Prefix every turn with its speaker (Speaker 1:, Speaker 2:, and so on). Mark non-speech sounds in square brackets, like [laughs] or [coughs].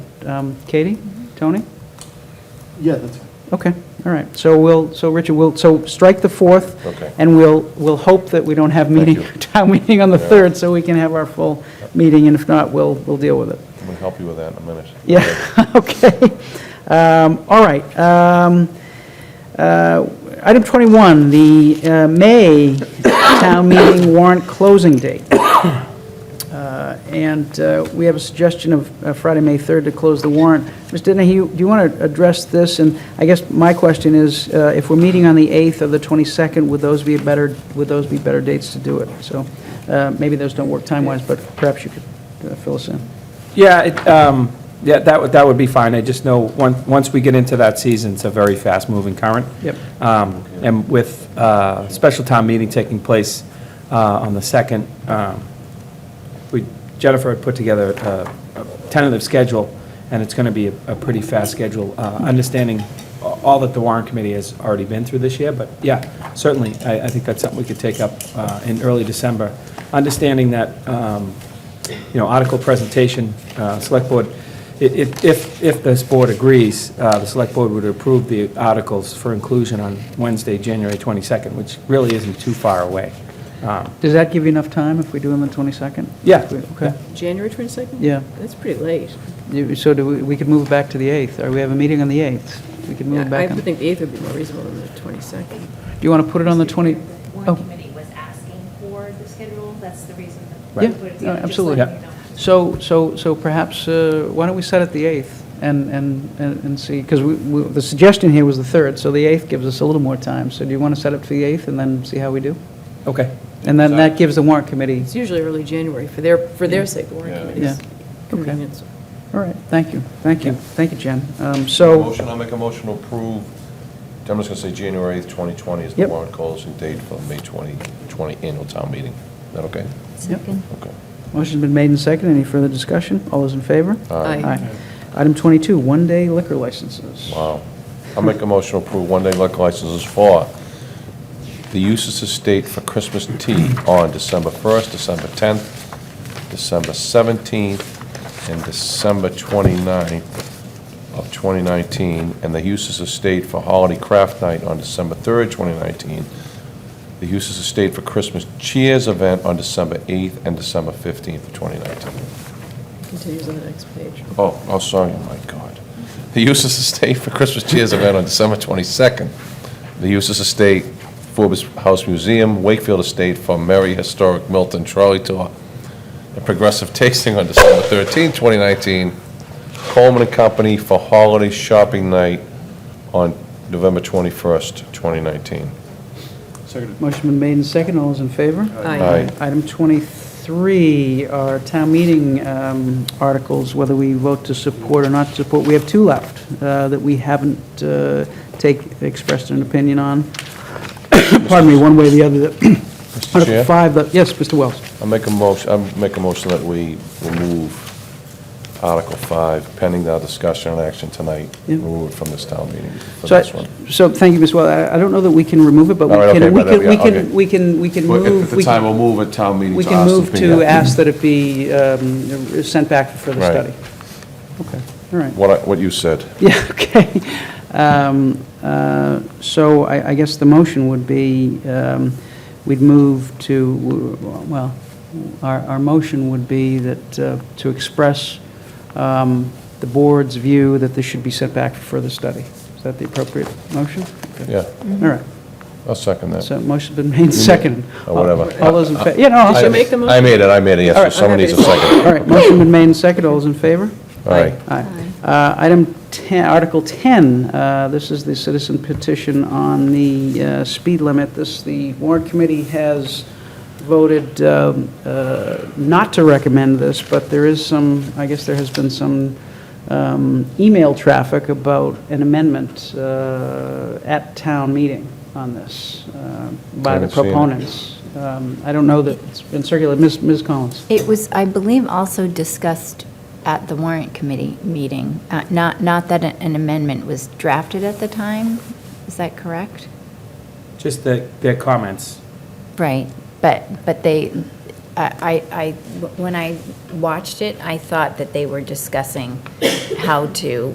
Speaker 1: um, Katie, Tony?
Speaker 2: Yeah, that's,
Speaker 1: Okay, all right. So we'll, so Richard, we'll, so strike the 4th.
Speaker 3: Okay.
Speaker 1: And we'll, we'll hope that we don't have meeting,
Speaker 3: you.
Speaker 1: [laughs] town meeting on the
Speaker 3: Yeah.
Speaker 1: 3rd, so we can have our full meeting, and if not, we'll, we'll deal with it.
Speaker 3: I'm going to help you with that in a minute.
Speaker 1: Yeah, [laughs] okay. Um, All right. Um, uh, Item 21, the uh, May town meeting warrant closing date. [coughs] Uh, And uh, we have a suggestion of uh, Friday, May 3rd to close the warrant. Mr. Dennehy, do you want to address this? And I guess my question is, uh, if we're meeting on the 8th or the 22nd, would those be a better, would those be better dates to do it? So uh, maybe those don't work time-wise, but perhaps you could uh, fill us in.
Speaker 4: Yeah, it, um, yeah, that would, that would be fine. I just know, once, once we get into that season, it's a very fast-moving current.
Speaker 1: Yep.
Speaker 4: Um, and with, uh, special town meeting taking place, uh, on the second, um, we, Jennifer had put together a a tentative schedule, and it's going to be a a pretty fast schedule, uh, understanding all that the Warren Committee has already been through this year, but yeah, certainly, I, I think that's something we could take up uh, in early December, understanding that, um, you know, article presentation, uh, Select Board, i- if, if, if this board agrees, uh, the Select Board would approve the articles for inclusion on Wednesday, January 22nd, which really isn't too far away. Um,
Speaker 1: Does that give you enough time if we do them on 22nd?
Speaker 4: Yeah.
Speaker 1: Okay.
Speaker 5: January 22nd?
Speaker 1: Yeah.
Speaker 5: That's pretty late.
Speaker 1: You- So do we, we could move it back to the 8th, or we have a meeting on the 8th? We could move it
Speaker 5: I
Speaker 1: back on,
Speaker 5: would
Speaker 1: do
Speaker 5: think the 8th would be more reasonable than the 22nd.
Speaker 1: you want to put it on the 20?
Speaker 6: Warren
Speaker 1: Oh,
Speaker 6: Committee was asking for the schedule, that's the reason that.
Speaker 1: yeah,
Speaker 6: we put it
Speaker 1: no,
Speaker 6: together, just
Speaker 1: absolutely.
Speaker 6: letting you know.
Speaker 1: So, so, so perhaps, uh, why don't we set it the 8th and, and, and and see, because we, we- the suggestion here was the 3rd, so the 8th gives us a little more time. So do you want to set it for the 8th and then see how we do?
Speaker 4: Okay.
Speaker 1: And then that gives the warrant committee,
Speaker 5: It's usually early January for their, for their sake, the warrant
Speaker 3: Yeah.
Speaker 1: Yeah.
Speaker 5: committee's
Speaker 1: Okay.
Speaker 5: convenience.
Speaker 1: all right, thank you, thank you, thank you, Jen. Um, So,
Speaker 3: Motion, I'll make a motion to approve, I'm just going to say January 8th, 2020 is the
Speaker 1: Yep.
Speaker 3: warrant closing date for the May 2020 annual town meeting. Is that okay?
Speaker 1: Second.
Speaker 3: Okay.
Speaker 1: motion's been made and seconded, any further discussion? All those in favor?
Speaker 5: Aye.
Speaker 1: Aye. Item 22, one-day liquor licenses.
Speaker 3: Wow. I'll Um, make a motion to approve one-day liquor licenses for the Eustace Estate for Christmas tea on December 1st, December 10th, December 17th, and December 29th of 2019, and the Eustace Estate for Holiday Craft Night on December 3rd, 2019, the Eustace Estate for Christmas Cheers event on December 8th and December 15th of 2019.
Speaker 5: Continues on the next page.
Speaker 3: Oh, oh, sorry, my God. The Eustace Estate for Christmas Cheers event on December 22nd. The Eustace Estate, Forbes House Museum, Wakefield Estate for Merry Historic Milton Trolley Tour, and Progressive Tasting on December 13th, 2019. Coleman and Company for Holiday Shopping Night on November 21st, 2019.
Speaker 2: seconded.
Speaker 1: Motion been made and second, all those in favor?
Speaker 3: Aye.
Speaker 1: Item 23 are town meeting um, articles, whether we vote to support or not to support. We have two left uh, that we haven't uh, take, expressed an opinion on. [coughs] Pardon me, one way or the other. that-
Speaker 3: Mr.
Speaker 1: Article
Speaker 3: Chair?
Speaker 1: 5, that- yes, Mr. Wells.
Speaker 3: I make a motion, I make a motion that we remove Article 5 pending our discussion and action tonight.
Speaker 1: Yeah.
Speaker 3: Remove it from this town meeting for
Speaker 1: So, I-
Speaker 3: this one.
Speaker 1: so thank you, Ms. Wells. I I don't know that we can remove it, but we
Speaker 3: All right, okay,
Speaker 1: can, we
Speaker 3: but, uh,
Speaker 1: can, we
Speaker 3: yeah, okay.
Speaker 1: can, we can, we can
Speaker 3: Well,
Speaker 1: move.
Speaker 3: At the
Speaker 1: we can-
Speaker 3: time, we'll move at town meeting
Speaker 1: We
Speaker 3: to
Speaker 1: can
Speaker 3: Austin
Speaker 1: move
Speaker 3: P.
Speaker 1: to ask that it be um, sent back for the
Speaker 3: Right.
Speaker 1: study. Okay, all right.
Speaker 3: What, I- what you said.
Speaker 1: [laughs] Yeah, okay. Um, uh, So I I guess the motion would be, um, we'd move to, well, our our motion would be that, uh, to express um, the board's view that this should be sent back for further study. Is that the appropriate motion? Okay.
Speaker 3: Yeah,
Speaker 1: All right,
Speaker 3: I'll second that.
Speaker 1: so motion's been made second.
Speaker 3: Or whatever.
Speaker 1: All those in favor? Yeah, no, I'll
Speaker 3: I-
Speaker 1: second.
Speaker 5: make the motion?
Speaker 3: I made it, I made it, yes,
Speaker 1: All
Speaker 3: so
Speaker 1: right,
Speaker 3: someone
Speaker 5: okay.
Speaker 3: needs a second.
Speaker 1: [coughs] All right, motion been made and seconded. All those in favor?
Speaker 3: All right,
Speaker 1: Aye. Uh, Item 10, Article 10, uh, this is the citizen petition on the uh, speed limit. This, the warrant committee has voted um, uh, not to recommend this, but there is some, I guess there has been some um, email traffic about an amendment uh, at town meeting on this uh, by the
Speaker 3: Haven't seen it.
Speaker 1: proponents. Um, I don't know that it's been circulated. Ms. Ms. Collins?
Speaker 7: It was, I believe, also discussed at the warrant committee meeting, Uh, not, not that an amendment was drafted at the time, is that correct?
Speaker 4: Just the, their comments.
Speaker 7: Right, but, but they, I, I, I- when I watched it, I thought that they were discussing how to